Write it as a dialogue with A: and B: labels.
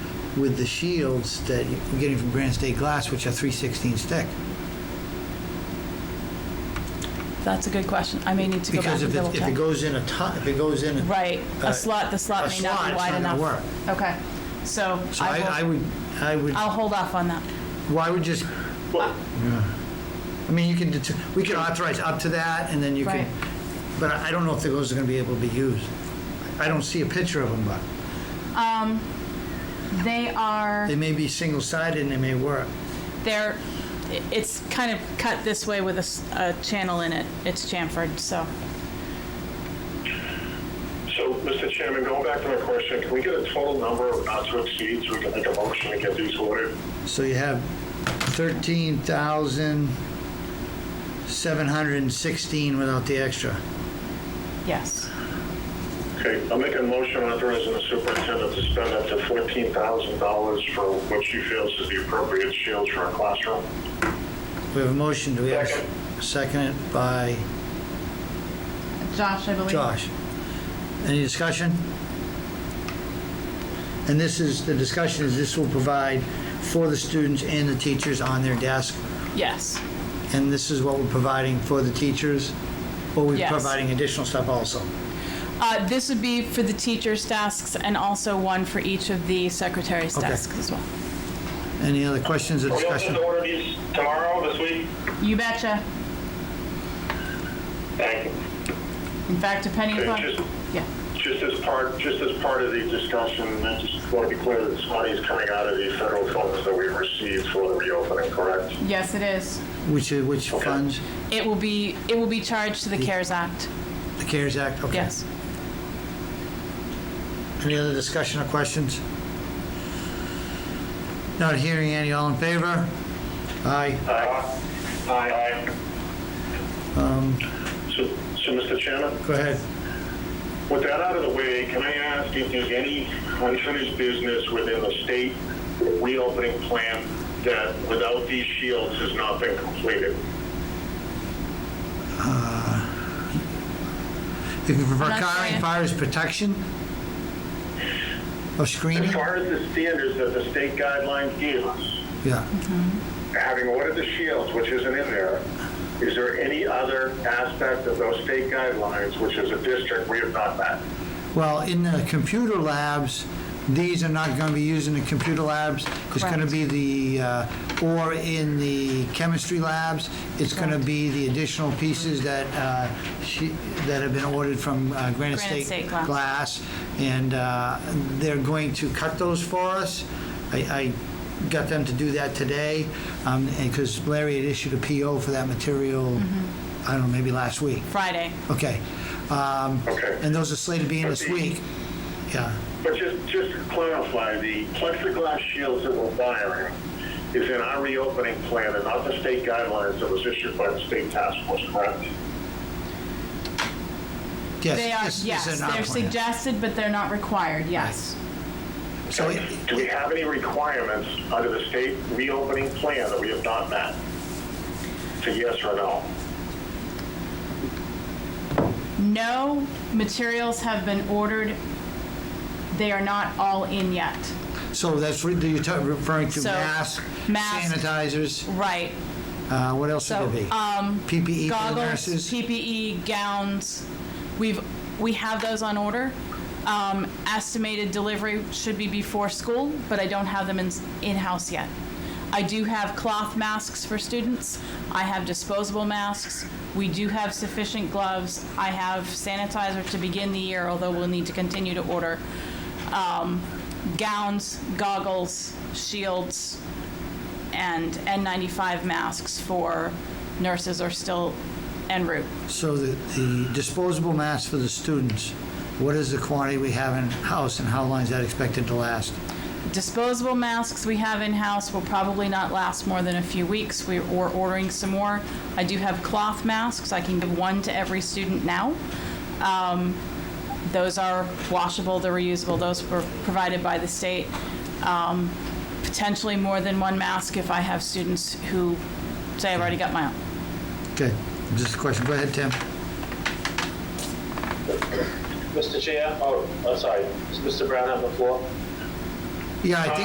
A: with the shields that you're getting from Grand State Glass, which are 316 stick.
B: That's a good question. I may need to go back
A: Because
B: and
A: if it,
B: double
A: if it
B: check.
A: goes in a ton, if it goes in. a-
B: Right,
A: uh,
B: a slot, the slot
A: a
B: may not
A: slot,
B: be
A: it's
B: wide
A: not
B: enough.
A: gonna
B: Okay, so
A: So I, I
B: I will,
A: would, I would,
B: I'll hold off on that.
A: well, I would just, Yeah. I mean, you can, det- we could authorize up to that and then you can,
B: Right.
A: but I I don't know if those are gonna be able to be used. I don't see a picture of them, but
B: They are,
A: they may be single-sided and they may work.
B: they're, i- it's kind of cut this way with a s- a, channel in it. It's chamfered, so.
C: So, Mr. Chairman, going back to my question, can we get a total number of not to exceed so we can make a motion to get these ordered?
A: So you have 13,716 without the extra.
B: Yes.
C: Okay, I'll make a motion authorizing the superintendent to spend up to $14,000 for what she feels is the appropriate shields for a classroom.
A: We have a motion, do we have
C: Second.
A: a second by
B: Josh, I believe.
A: Josh? Any discussion? And this is, the discussion is this will provide for the students and the teachers on their desk,
B: Yes,
A: and this is what we're providing for the teachers, or we're
B: Yes.
A: providing additional stuff also?
B: Uh, this would be for the teachers' desks and also one for each of the secretaries'
A: Okay.
B: desks as well.
A: Any other questions or
D: Are we looking
A: discussion?
D: to order these tomorrow, this week?
B: You betcha.
D: Thank you.
B: In fact, depending
C: Okay,
B: upon,
C: just-
B: yeah,
C: Just as part, just as part of the discussion, I just want to be clear that this money is coming out of the federal funds that we received for the reopening, correct?
B: yes, it is.
A: Which, which funds?
B: It will be, it will be charged to the CARES Act,
A: The CARES Act? Okay.
B: yes.
A: Any other discussion or questions? Not hearing any, all in favor? Aye.
C: Aye. Aye. So, so, Mr. Chairman?
A: Go ahead.
C: With that out of the way, can I ask if there's any unfinished business within the state reopening plan that without these shields has not been completed?
A: If you prefer
B: Not
A: car
B: saying.
A: and fire as protection? Or
C: As
A: screening?
C: far as the standards that the state guidelines give us,
A: Yeah.
C: having ordered the shields, which isn't in there, is there any other aspect of those state guidelines, which is a district we have not met?
A: Well, in the computer labs, these are not going to be used in the computer labs. It's going to
B: Correct.
A: be the, uh, or in the chemistry labs, it's going to be the additional pieces that uh, she- that have been ordered from uh, Granite
B: Granite
A: State
B: State Glass.
A: Glass. And uh, they're going to cut those for us. I I got them to do that today, because Larry had issued a PO for that material,
B: Mm-hmm.
A: I don't know, maybe last week.
B: Friday.
A: Okay. Um,
C: Okay.
A: And those are slated to be in this
C: Okay.
A: week. Yeah.
C: But just, just to clarify, the plexiglass shields that we're buying is in our reopening plan and not the state guidelines that was issued by the state task force, correct?
A: Yes.
B: They are,
A: this- this
B: yes,
A: is in our
B: they're
A: plan.
B: suggested, but they're not required, yes.
A: So it-
C: Do we have any requirements under the state reopening plan that we have not met? So yes or no?
B: No materials have been ordered. They are not all in yet.
A: So that's, re- you're ta- referring to
B: So,
A: masks,
B: mask.
A: sanitizers,
B: Right.
A: uh, what else
B: So,
A: would it be?
B: um,
A: PPE for the
B: goggles,
A: E nurses?
B: PPE, gowns, we've, we have those on order. Um, estimated delivery should be before school, but I don't have them in, in-house yet. I do have cloth masks for students. I have disposable masks. We do have sufficient gloves. I have sanitizer to begin the year, although we'll need to continue to order. Um, gowns, goggles, shields, and N95 masks for nurses are still en route.
A: So the the disposable masks for the students, what is the quantity we have in-house and how long is that expected to last?
B: Disposable masks we have in-house will probably not last more than a few weeks. We- We're ordering some more. I do have cloth masks. I can give one to every student now. Um, Those are washable, they're reusable. Those were provided by the state. Um, Potentially more than one mask if I have students who say, I've already got my own.
A: Okay, just a question, go ahead, Tim.
D: Mr. Chair, oh, oh, sorry, Is Mr. Brown on the floor?
A: Yeah, I think